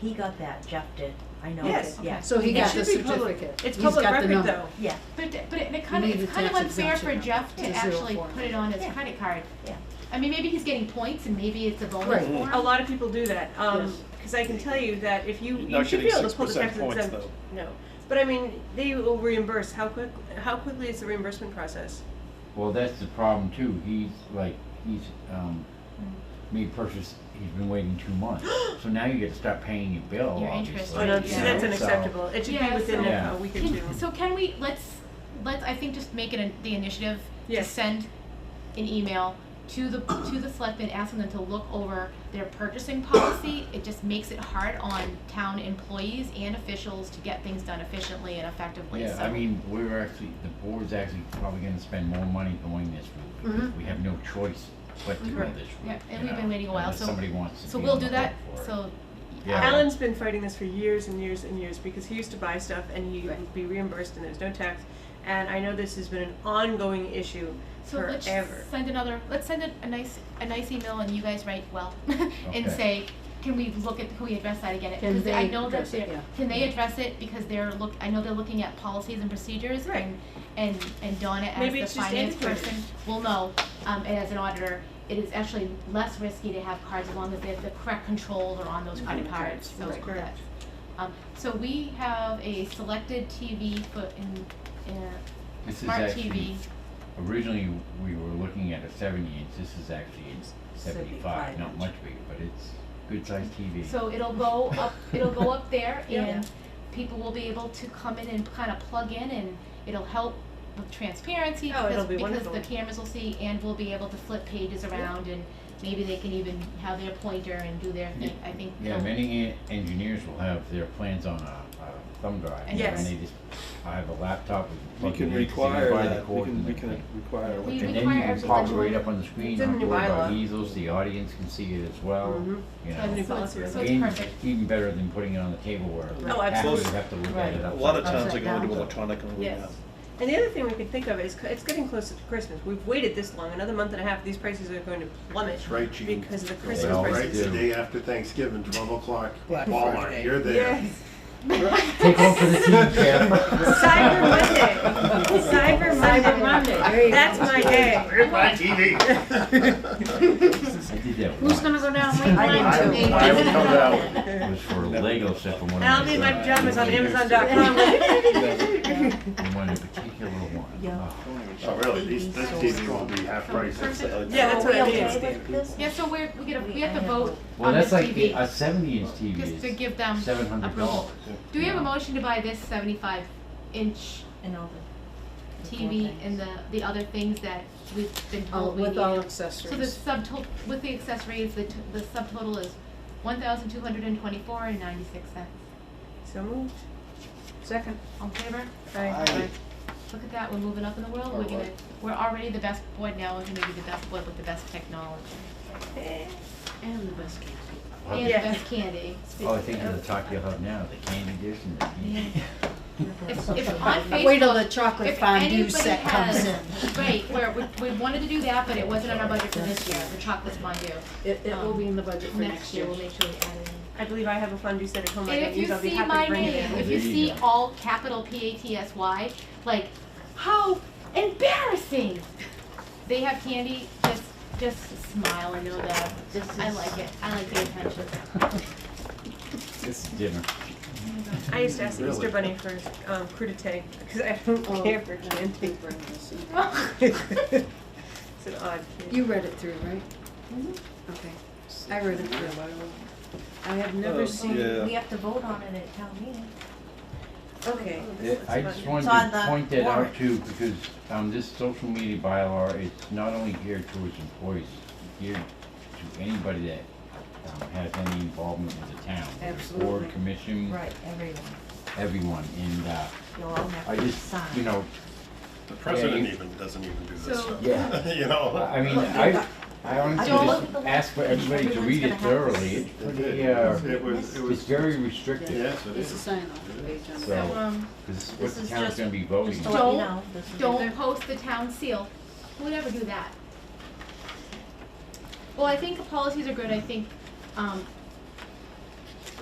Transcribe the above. he got that, Jeff did, I know, Yes. that- yeah, So he It got should the be public. certificate. It's He's public got the record number. though. yeah, But, it- but it it kind of, You need it's the kind of tax unfair for exemption Jeff to to zero actually form. put it on his Yeah. credit card. Yeah. I mean, maybe he's getting points and maybe it's a bonus Right. for him. A lot of people do that, um, Yes. because I can tell you that if you, You're you not should be getting able to pull the 6% tax points, exempt. No, but I mean, they will reimburse, how quick, how quickly is the reimbursement process? Well, that's the problem too. He's like, he's, um, Mm. made purchase, he's been waiting two months. So now you get to start paying your bill, Your interest obviously. Oh, no, rate, see, yeah. that's So- unacceptable, it should be Yeah, within so- a Yeah. a week or two. Can, so can we, let's, let's, I think just make it an the initiative to Yes. send an email to the, to the selectmen, asking them to look over their purchasing policy. It just makes it hard on town employees and officials to get things done efficiently and effectively, Yeah, so. I mean, we're actually, the board's actually probably gonna spend more money going this route. because We have no choice but to go Right. this route. Mm-hmm. Yeah, and you we've been know, waiting a while, unless so- somebody wants to So be we'll on do the that, hook for it. so. Yeah. Alan's been fighting this for years and years and years because he used to buy stuff and he Right. would be reimbursed and there's no tax. And I know this has been an ongoing issue So forever. let's send another, let's send a, a nice, a nice email and you guys write well and Okay. say, can we look at, can we address that again? Can 'Cause they I know that address it? they're- Yeah. Can they address it because they're look, I know they're looking at policies and procedures Right. and, and, and Donna as Maybe the it's just finance antiquated. person will know, um, and as an auditor, it is actually less risky to have cards as long as they have the correct controls are on those credit Mhm. cards, so Right. Correct. that's. Um, so we have a selected TV foot in, in, This is smart actually- TV. Originally, we were looking at a seventy inch, this is actually a seventy-five, 75 not inch. much bigger, but it's good sized TV. So it'll go up, it'll go up there Yeah. and people will be able to come in and kind of plug in and it'll help with transparency Oh, it'll because, be because wonderful. the cameras will see and we'll be able to flip pages around and maybe they can even have their pointer and do their thing, I think. Yeah, they'll- many en- engineers will have their plans on a, a thumb drive. Yes. And they just, I have a laptop. with- We can with the require USB that, we cord can, and we can everything. require. We- And then require you can everyone pop it to- right up on the screen, It's in not the worry about bylaw. easels, the audience can see it as well, Um, Mhm. you So know. it's- so it's- Policy. so it's And perfect. Even better than putting it on the table where Oh, half of you absolutely. have to look Right. at it A upside lot of times they Upside go into down. electronic and we Yes. And the other thing we can think of is c- it's getting closer to Christmas. We've waited this long, another month and a half. These prices are going to plummet That's right, Gene. because of the They Christmas all prices. Right, the do. day after Thanksgiving, twelve o'clock, Black Walmart, Friday. you're there. Yes. Take off for the team, Kim. Cyber Monday. Cyber Monday. Cyber Monday. There you go. That's my day. Where's my TV? I did that Who's once, gonna go down I Lake I did Line? too. will- I will come down. it was for Lego stuff from one of my. And I'll be in my sons. pajamas on And Amazon.com. one in particular one. Yeah. Oh. Oh, really? These, this TV will be half price. It's, uh, Yeah, that's what I Are we mean. okay with this? Yeah, so we're, we get a, we have to vote Well, on the that's like the- TV, a seventy inch TV just to is give them approval. seven hundred dollars. Do we have a Yeah. motion to buy this seventy-five inch And all the. the four TV things. and the, the other things that we've been Oh, told we need. With all So the accessories. subtotal, with the accessories, the, t- the subtotal is one thousand two hundred and twenty-four and ninety-six cents. So moved. Second. All in favor? Aye. Look at that, we're moving up in the world, we're gonna, we're already the best board now, we're gonna be the best board with the best technology. And the best case. And the Yeah. best candy. Oh, I think of the talk you'll have now, the candy dish and the candy. If, if on Facebook. Wait till the chocolate if fondue anybody set comes has- in. Right, where, we, we wanted to do that, but it wasn't on our budget for this year, the chocolate fondue. It, it will be in the budget for Next year, we'll And make sure we add it in. I believe I have a fondue set at home. I And don't if use. you I'll be see happy my to bring it name, in. if you There you see go. all capital P A T S Y, like, how embarrassing! They have candy, just, just smile and know that, This is. I like it, I like the attention. It's dinner. I used to ask Really? Easter Bunny for um, crudité because I don't Oh, care for no. candy. bring this in. it's an odd kid. You read it through, right? Okay. I read it through. Mm-hmm. I have Oh, never seen. Yeah. We have to vote on it at town meeting. Okay. I just wanted It's on to the point that warrant. out too, because, um, this social media bylaw is not only geared towards employees, it's geared to anybody that, um, has any involvement with the town. whether it's Absolutely. Board, commission, Right, everyone. everyone, and, uh, You'll all have I to just, sign. you know, The president Yeah, you- even, doesn't even do this So- stuff. Yeah. You know? I mean, I, I honestly Joel, just look at the- ask for everybody to everyone's read gonna it have thoroughly, this. it's It pretty, uh, did. It was, it it's was, very restricted. yes, it It's a is. sign off page on So- the. So, um, This is This what the is town's just- gonna be voting. Just to let Don't- you know, this is. don't post the town seal, who would ever do that? Well, I think policies are good, I think, um,